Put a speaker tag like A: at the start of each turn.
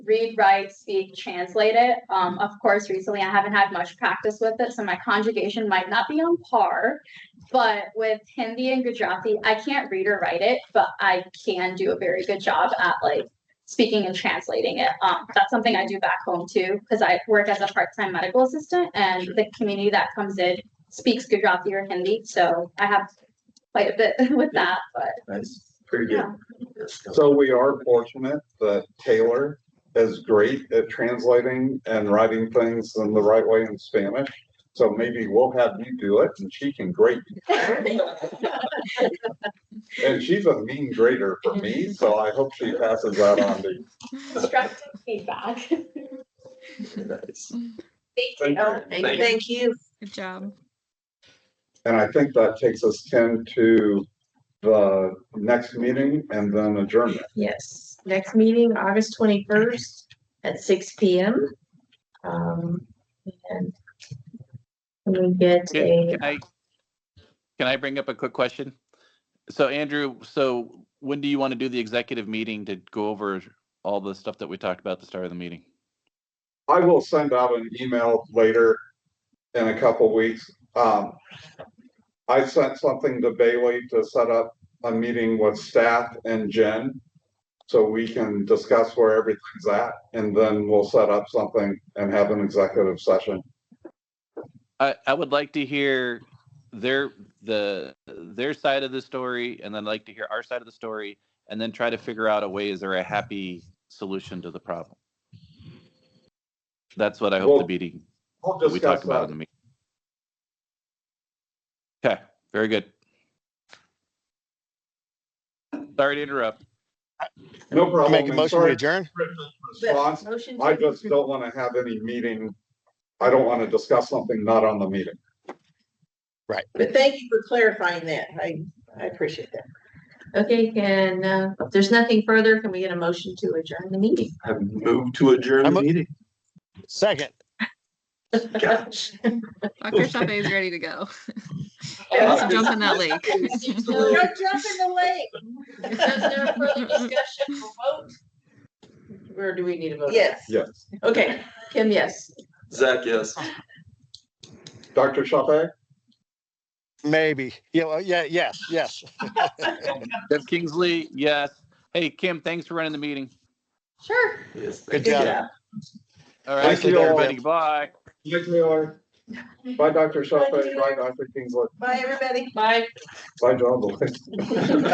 A: read, write, speak, translate it. Um, of course, recently I haven't had much practice with it, so my conjugation might not be on par. But with Hindi and Gujarati, I can't read or write it, but I can do a very good job at like speaking and translating it. Um, that's something I do back home too, because I work as a part-time medical assistant and the community that comes in speaks Gujarati or Hindi, so I have quite a bit with that, but
B: That's pretty
A: yeah.
B: good.
C: So we are fortunate that Taylor is great at translating and writing things in the right way in Spanish. So maybe we'll have you do it and she can grade. you. And she's a mean grader for me, so I hope she passes that on to you.
A: constructive feedback.
B: Nice.
A: Thank you.
D: Thank you.
E: Good job.
C: And I think that takes us Ken to the next meeting and then adjournment.
D: Yes, next meeting, August twenty-first at six P M. Um, and let me get a,
F: Can I, can I bring up a quick question? So Andrew, so when do you want to do the executive meeting to go over all the stuff that we talked about at the start of the meeting?
C: I will send out an email later in a couple weeks. Um, I sent something to Bailey to set up a meeting with staff and Jen. So we can discuss where everything's at and then we'll set up something and have an executive session.
F: I, I would like to hear their, the, their side of the story and then like to hear our side of the story and then try to figure out a way, is there a happy solution to the problem? That's what I hope
C: Well,
F: the meeting,
C: We'll
F: that we
C: discuss
F: talked about in
C: that.
F: the meeting. Okay, very good. Sorry to interrupt.
C: No
G: I
C: problem.
G: make a
C: And
G: motion
C: sorry
G: to
C: for
G: adjourn.
C: the response.
D: motion
C: I
D: to
C: just don't want to have any meeting. I don't want to discuss something not on the meeting.
H: But thank you for clarifying that. I, I appreciate that.
D: okay, can, uh, if there's nothing further, can we get a motion to adjourn the meeting?
B: I move to adjourn
G: I'm
B: the
G: a-
B: meeting.
G: Second.
E: Dr. Shafe is ready to go.
D: Yeah.
E: Let's jump in that lake.
H: Don't jump in the lake.
D: If there's no further discussion or vote, Or do we need a vote?
H: Yes.
C: Yes.
D: Okay, Kim, yes.
B: Zach, yes.
C: Dr. Chape?
G: Maybe. Yeah, well, yeah, yes, yes.
F: Jeff Kingsley, yes. Hey, Kim, thanks for running the meeting.
A: Sure.
B: Yes.
G: Good
B: thank
G: job.
B: you.
F: All right,
C: Thank
F: take
C: you
F: care,
C: all.
F: everybody. Bye.
C: Yes, Taylor. Bye, Dr. Chape.
H: Bye, Taylor.
C: Bye, Dr. Kingsley.
H: Bye, everybody.
D: Bye.
C: Bye, John Boy.